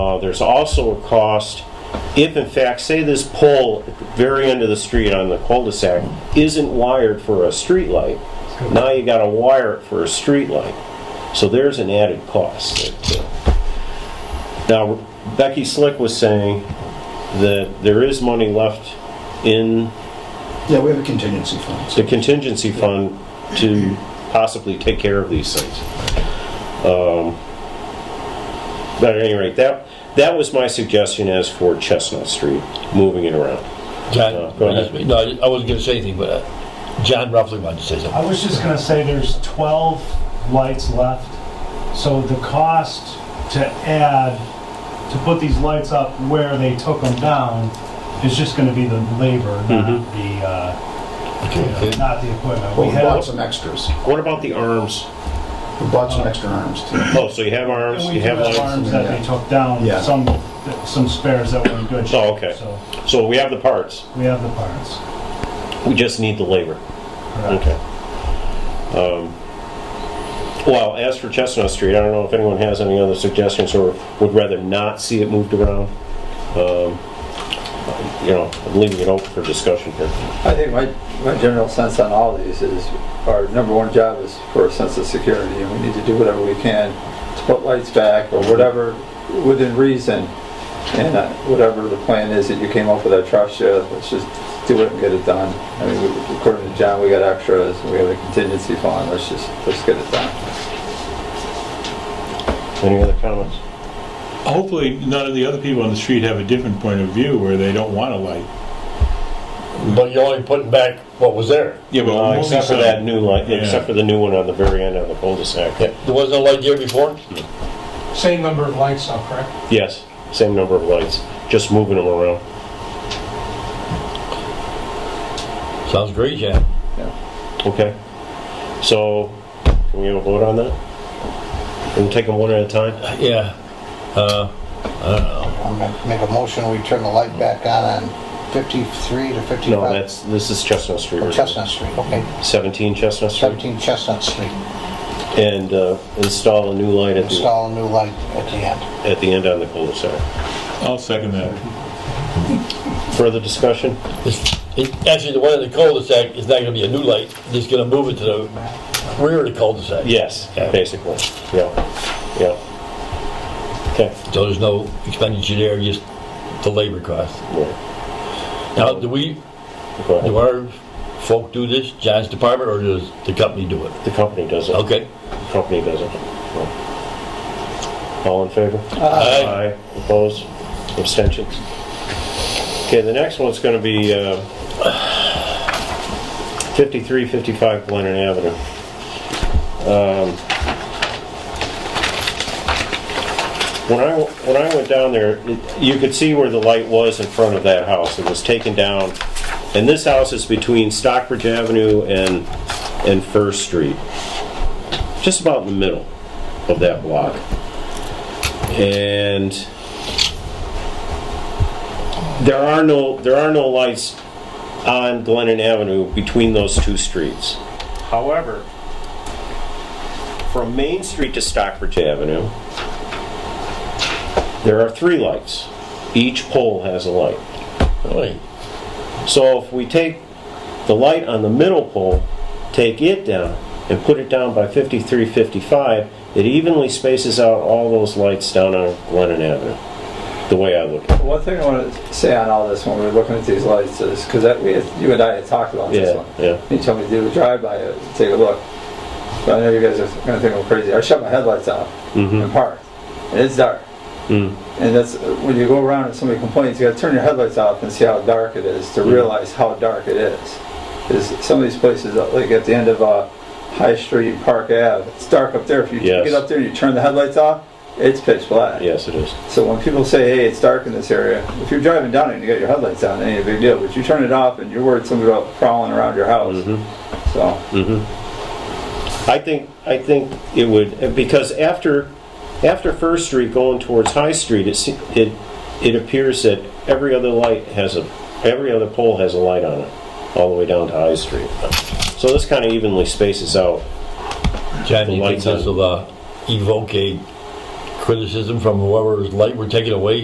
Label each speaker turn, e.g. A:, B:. A: Uh, There's also a cost, if in fact, say this pole at the very end of the street on the cul-de-sac isn't wired for a streetlight, now you gotta wire it for a streetlight. So there's an added cost. that, uh, Now, Becky Slick was saying that there is money left in
B: Yeah, we have a contingency fund. so-
A: the contingency fund to possibly take care of these things. Um, But at any rate, that, that was my suggestion as for Chestnut Street, moving it around.
C: John,
A: Go ahead.
C: Uh, no, I wasn't gonna say anything, but uh, John roughly wanted to say something.
D: I was just gonna say there's 12 lights left, so the cost to add, to put these lights up where they took them down is just gonna be the labor, not
A: Mm-hmm.
D: the, uh, you know,
C: Okay.
D: not the equipment.
B: Well,
D: We
B: we bought
D: have,
B: some extras.
A: What about the arms?
B: We bought some extra arms too.
A: Oh, so you have arms,
D: and we
A: you
D: do
A: have
D: have
A: lights?
D: arms that they took down,
B: Yeah.
D: some, some spares that were in good shape.
A: Oh, okay.
D: So
A: So we have the parts,
D: we have the parts.
A: we just need the labor.
D: correct.
A: Okay. Um, Well, as for Chestnut Street, I don't know if anyone has any other suggestions or would rather not see it moved around. Um, You know, I'm leaving it open for discussion here.
E: I think my, my general sense on all of these is our number one job is for a sense of security and we need to do whatever we can to put lights back or whatever within reason. And uh, whatever the plan is that you came up with, I trust you, let's just do it and get it done. I mean, we- according to John, we got extras, we have a contingency fund, let's just, let's get it done.
A: Any other comments?
F: Hopefully, none of the other people on the street have a different point of view where they don't want a light.
C: But you're only putting back what was there.
F: Yeah, but
A: Uh,
F: moving
A: Except for
F: some-
A: that new light,
F: Yeah.
A: except for the new one on the very end of the cul-de-sac.
C: There wasn't a light there before?
G: Same number of lights though, correct?
A: Yes, same number of lights, just moving them around.
C: Sounds great, John.
A: Okay. So, can we have a vote on that? We'll take them one at a time?
C: Yeah. Uh,
H: I'll make- make a motion, we turn the light back on on 53 to 55?
A: No, that's, this is Chestnut Street.
H: Or Oh, Chestnut Street, okay,
A: 17 Chestnut Street?
H: 17 Chestnut Street.
A: and uh, install a new light at the,
H: Install a new light at the end.
A: at the end on the cul-de-sac.
F: I'll second that.
A: Further discussion?
C: it's- it- Actually, the one in the cul-de-sac is not gonna be a new light, it's gonna move it to the rear of the cul-de-sac.
A: Yes,
C: Okay.
A: basically, yeah, yeah. Okay.
C: So there's no expenditure there, just the labor cost.
A: yeah,
C: Now, do we,
A: go
C: do
A: ahead.
C: our folk do this, John's department, or does the company do it?
A: The company does it.
C: Okay.
A: The company does it. All in favor?
C: Uh, Aye.
A: Aye. Opposed? Abstentions? Okay, the next one's gonna be uh, 5355 Glennon Avenue. Um, When I, when I went down there, it- you could see where the light was in front of that house. It was taken down. And this house is between Stockbridge Avenue and, and First Street. Just about in the middle of that block. And there are no, there are no lights on Glennon Avenue between those two streets. However, from Main Street to Stockbridge Avenue, there are three lights. Each pole has a light.
C: Really?
A: So if we take the light on the middle pole, take it down, and put it down by 5355, it evenly spaces out all those lights down on Glennon Avenue, the way I look at it.
E: One thing I want to say on all this when we we're looking at these lights is, because that, we, had- you and I had talked about this
A: Yeah,
E: one.
A: yeah.
E: He told me to do a drive-by, uh, take a look. But I know you guys are gonna think I'm crazy. I shut my headlights off
A: Mhm.
E: and parked, and it's dark.
A: Mm.
E: And that's, when you go around and somebody complains, you gotta turn your headlights off and see how dark it is, to realize how dark it is. Because some of these places, uh, like at the end of, uh, High Street, Park Ave, it's dark up there. If you
A: Yes.
E: get up there and you turn the headlights off, it's pitch black.
A: Yes, it is.
E: So when people say, hey, it's dark in this area, if you're driving down it and you got your headlights on, it ain't a big deal. But you turn it off and you're worried somebody about prowling around your house. So,
A: I think, I think it would, uh, because after, after First Street going towards High Street, it, se- it, it appears that every other light has a, every other pole has a light on it, all the way down to High Street. So this kind of evenly spaces out
C: John,
A: The
C: you think
A: lights on.
C: this will uh, evoke a criticism from whoever's light we're taking away